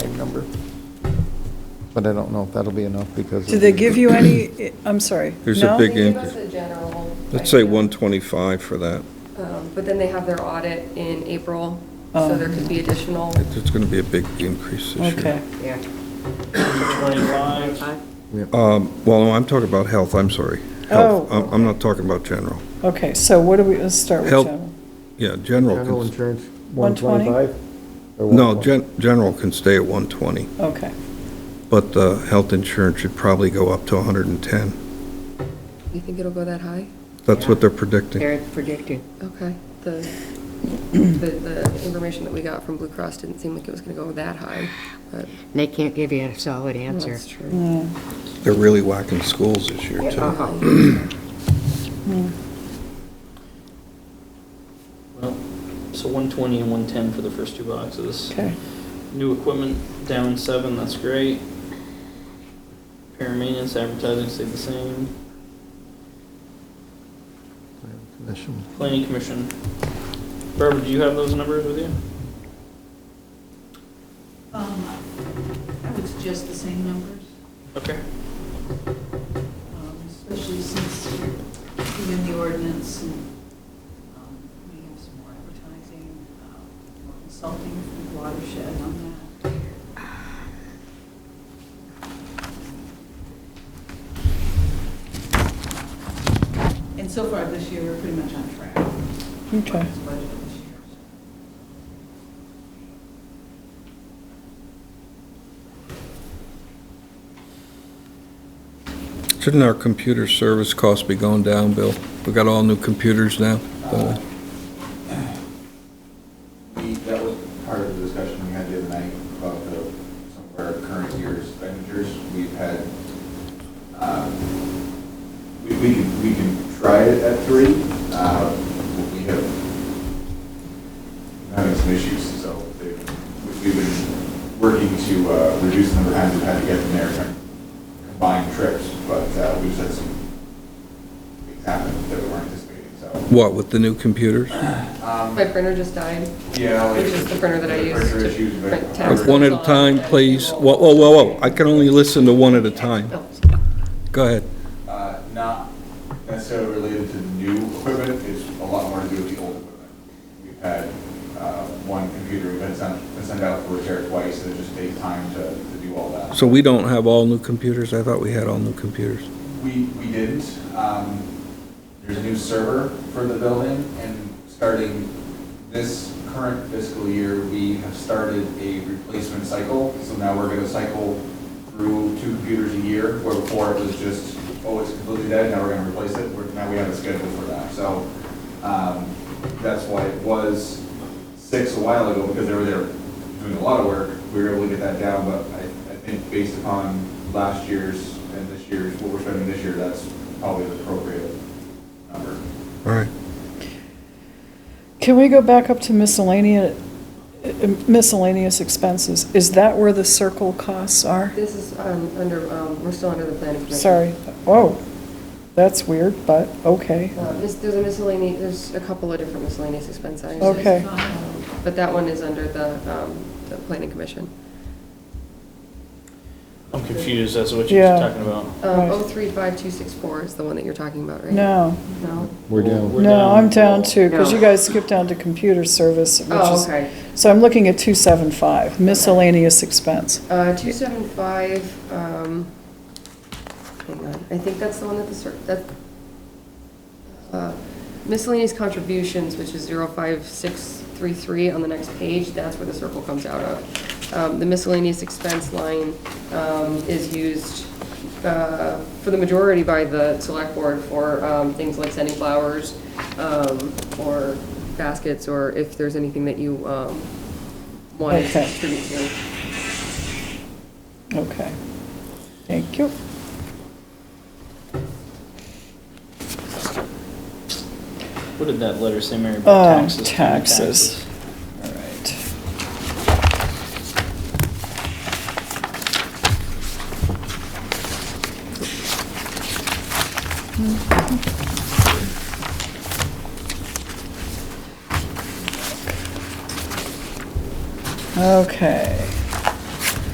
number. But I don't know if that'll be enough because. Did they give you any, I'm sorry, There's a no? big- They give us a general. Let's say idea. 125 for that. Um, But then they have their audit in April, Um, so there could be additional. It- It's going to be a big increase this year. Okay, Yeah. 25, Um, Well, no, I'm talking about health, I'm sorry. Health. Oh. I'm- I'm not talking about general. okay, so what do we, let's start with Help. general. Yeah, general, General can- insurance, 120? 125? Or no, 120? gen- general can stay at 120, Okay, but the health insurance should probably go up to 110. You think it'll go that high? That's what they're predicting. They're predicting. Okay. The, the the information that we got from Blue Cross didn't seem like it was going to go that high, but They can't give you a solid answer. that's true. Uh-huh. They're really whacking schools this year, too. well, so 120 and 110 for the first two boxes. okay. New equipment down seven, that's great. Repair and maintenance, advertising stayed the same. Uh-huh. Commission. Planning commission. Barbara, do you have those numbers with you? Um, I would suggest the same numbers, Okay. um, especially since you're doing the ordinance and um, we have some more advertising, um, more consulting from Watershed on that. And so far this year, we're pretty much on track. Okay. It's budgeted this year, so. Shouldn't our computer service costs be going down, Bill? We got all new computers now. Uh, We- That was part of the discussion we had the other night about the, some of our current year's expenditures. We've had, um, we, we can, we can try it at three. Uh, We have, we're having some issues, so they- we- we've been working to uh, reduce the number of times we've had to get them there, trying to combine trips, but uh, we've had some things happen that we weren't anticipating, so. What, with the new computers? um, My printer just died. Yeah. like- Which is the printer that I use Printer to issues, but- print text. Like, One at a time, please. Whoa, whoa, whoa, whoa. I can only listen to one at a time. Oh, Go ahead. Uh, Not necessarily related to new equipment, it's a lot more to do with the old equipment. We've had uh, one computer, we've been sent, been sent out for repair twice, and it just takes time to, to do all that. So we don't have all new computers? I thought we had all new computers. We, we didn't. Um, There's a new server for the building, and starting this current fiscal year, we have started a replacement cycle. So now we're gonna cycle through two computers a year, where before it was just, oh, it's completely dead, now we're gonna replace it. We're- Now we have a schedule for that. So um, that's why it was six a while ago, because they were there doing a lot of work. We were able to get that down, but I, I think based upon last year's and this year's, what we're spending this year, that's probably the appropriate number. All right. Can we go back up to miscellaneous, miscellaneous expenses? Is that where the circle costs are? This is um, under, um, we're still under the planning commission. Sorry, oh, that's weird, but, okay, Uh, mis- There's a miscellaneous, there's a couple of different miscellaneous expense items. Okay. Um, But that one is under the, um, the planning commission. I'm confused as to what you're Yeah. talking about. Right. Um, 035264 is the one that you're talking about, right? no, No? We're down. We're no, down. I'm down to, because you No. guys skipped down to computer service, which Oh, is, okay. so I'm looking at 275, miscellaneous expense. Uh, 275, um, hang on, I think that's the one that the, cer- that, uh, miscellaneous contributions, which is 05633 on the next page, that's where the circle comes out of. Um, The miscellaneous expense line um, is used uh, for the majority by the select board for um, things like sending flowers um, or baskets, or if there's anything that you um, want to Okay. contribute to. Okay, thank you. What did that letter say, Mary, about Um, taxes? Taxes, all right. Okay.